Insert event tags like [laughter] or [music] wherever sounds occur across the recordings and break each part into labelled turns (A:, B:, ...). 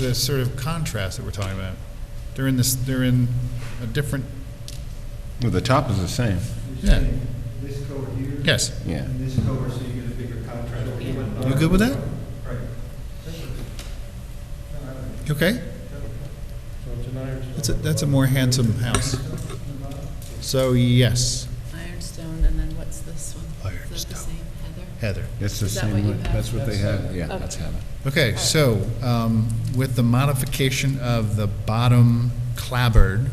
A: the sort of contrast that we're talking about. They're in this, they're in a different,
B: Well, the top is the same.
A: Yeah.
C: This color here.
A: yes.
B: Yeah.
C: And this color, so you get a bigger uh, contrast.
A: You good with that?
C: Right.
A: You Okay? That's a, that's a more handsome house. So, yes,
D: Ironstone, and then what's this one? Is that the
A: Ironstone.
D: same, Heather?
A: Heather.
B: That's the
D: Is that what
B: same
D: you
B: one.
D: have?
B: That's what they have. Yeah,
D: Okay.
B: that's Hannah.
A: Okay, so um, with the modification of the bottom clabbered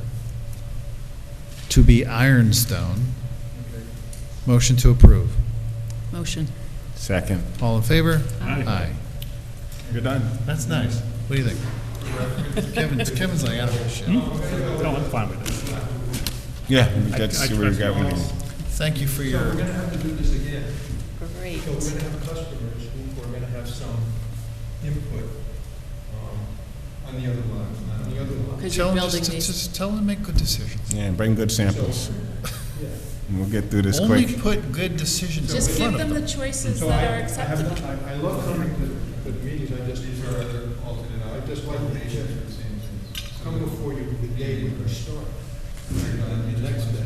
A: to be ironstone, motion to approve.
D: Motion.
B: Second.
A: All in favor? Aye.
B: You're done.
A: That's nice. What do you think? [laughs] Kevin, Kevin's like, out of this shit.
E: No, I'm fine with this.
B: Yeah, that's
E: I-
B: where we
E: I-
B: got. with it.
A: Thank you for
C: We're
A: your,
C: gonna have to do this again.
D: Great.
C: So we're gonna have customers who are gonna have some input, um, on the other lines, not on the other lines.
D: Because
A: tell him,
D: you're
A: just,
D: building
A: just-
D: these,
A: just tell him to make good decisions.
B: Yeah, bring good samples. And We'll get through this
A: Only
B: quick.
A: put good decisions in
D: just
A: front
D: give
A: of
D: them
A: them.
D: the choices
C: So
D: that
C: I-
D: are acceptable.
C: I have, I I love coming to, to the meetings, I just, these are alternate, I just like the patients and things. Come before you, the day when you start, on the next day.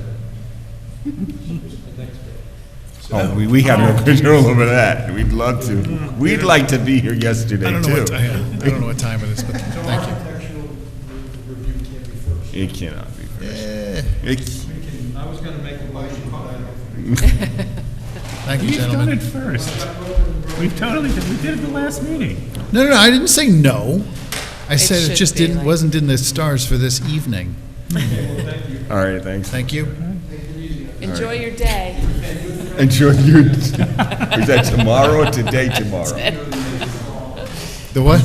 C: The next day.
B: Oh, we, we have no control over that. We'd love to. We'd like to be here
A: I
B: yesterday
A: don't know what,
B: too.
A: I I don't know what time it is, but
D: [laughs]
C: So
A: thank you.
C: architectural re- review can't be first.
B: It cannot be first.
A: Eh,
B: It-
C: We can, I was gonna make a motion, but I don't.
A: Thank you,
E: We've done
A: gentlemen.
E: it first. We've totally, did- we did it the last meeting.
A: No, no, no, I didn't say no. I said it
D: should
A: just
D: be
A: didn't,
D: like-
A: wasn't in the stars for this evening.
B: All right, thanks.
A: Thank you.
D: Mm-hmm. Enjoy your day.
B: Enjoy your, [laughs] is that tomorrow or today
D: [laughs]
B: tomorrow?
A: The what?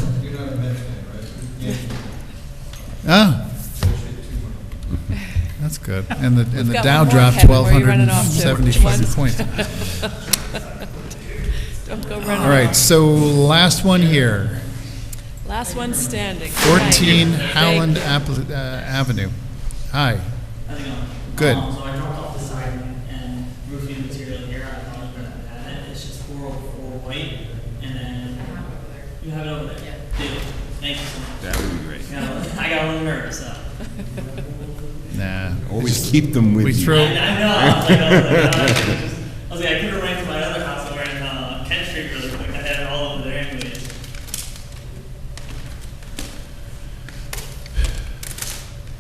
A: Ah. That's good. And the, and the
D: got
A: Dow
D: one more,
A: dropped
D: Kevin. Where are you running off to?
A: 1,275
D: Once? [laughs]
A: points. [laughs]
D: Don't go
A: All
D: running.
A: right, so last one here,
D: Last one standing. Good night.
A: 14
D: Thank
A: Howland
D: you.
A: Apple- uh, Avenue. Hi. Good.
F: Um, so I dropped off the siding and roofing material here. I thought I was gonna add it. It's just four oh four white, and then you have it over there. Yeah. Dude, thank you so much.
B: That would be great.
F: You know, I got a little nervous. So.
A: Nah.
B: Always keep them with you.
A: We
F: I,
A: throw,
F: I know. I was like, I was like, "Ah." I was like, I was like, I could have ran to my other house over in uh, Kent Street really quick. I had it all over there anyways.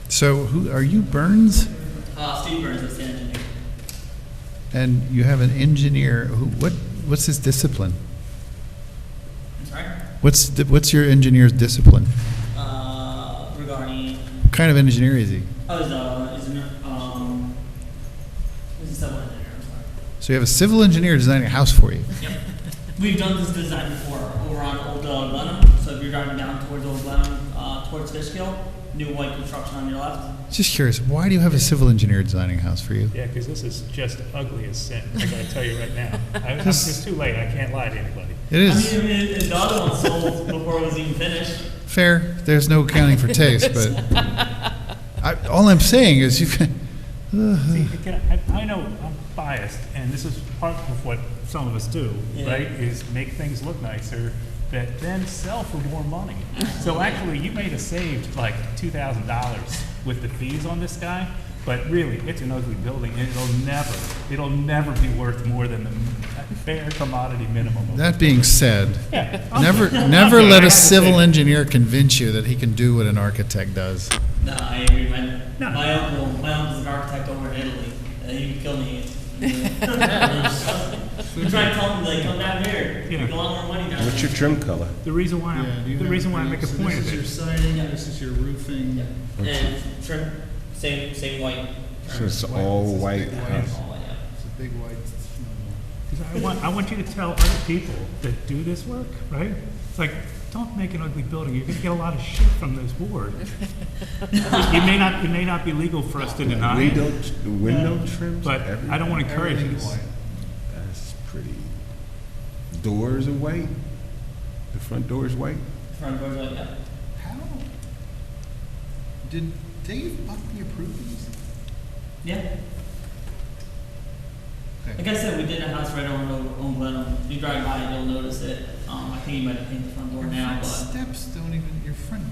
A: so who, are you Burns?
F: Uh, Steve Burns was the engineer.
A: And you have an engineer, who, what, what's his discipline?
F: I'm sorry.
A: What's, the- what's your engineer's discipline?
F: Uh, regarding
A: What kind of engineer is he?
F: oh, is uh, is um, is it someone engineer? I'm sorry.
A: So you have a civil engineer designing a house for you.
F: Yep. We've done this design before over on Old uh, Glenham. So if you're driving down towards Old Glenham, uh, towards Fishkill, new white construction on your left.
A: Just curious, why do you have a civil engineer designing a house for you?
E: Yeah, because this is just ugly as sin, I gotta tell you right now. I- I'm- It's too late, I can't lie to anybody.
A: It
F: I
A: is
F: mean, it, it, the other one sold before it was even finished.
A: fair, there's no accounting for taste, but I, all I'm saying is you [laughs] can,
E: See, again, I, I know I'm biased, and this is part of what some of us do,
F: Yeah.
E: right? Is make things look nicer that then sell for more money. so actually, you may have saved like two thousand dollars with the fees on this guy, but really, it's an ugly building, and it'll never, it'll never be worth more than the fair commodity minimum. of-
A: that being said,
E: yeah, I'm-
A: never,
E: I'm
A: never
E: sorry, I
A: let
E: had
A: a
E: to say
A: civil
E: it.
A: engineer convince you that he can do what an architect does.
F: No, I agree. My,
E: No.
F: my uncle, my uncle's an architect over in Italy. Uh, he would kill
E: [laughs]
F: me. we try to tell him like, come down here. You
E: Yeah.
F: make a lot more money down
B: What's
F: here.
B: your trim color?
E: The reason why, I'm- the reason why I make a point of it.
C: siding, this is your roofing.
F: and trim, same same white.
B: So it's all white house.
F: All white, yeah.
C: It's a big white.
E: Because I want, I want you to tell other people that do this work, right? It's like, don't make an ugly building. You're going to get a lot of shit from this board. it may not, it may not be legal for us to deny
B: Window,
E: it,
B: window trims?
E: but I don't want to encourage
C: Everything
E: this.
C: white.
B: That's pretty. Doors are white? The front door is white?
F: Front doors like that.
C: How? Did Dave Buckley approve these?
F: Yeah.
C: Okay.
F: Like I said, we did a house right on, on Glenham. If you drive by, you'll notice it. Um, I think you might have painted the front door now,
C: Front
F: but
C: Steps don't even, your front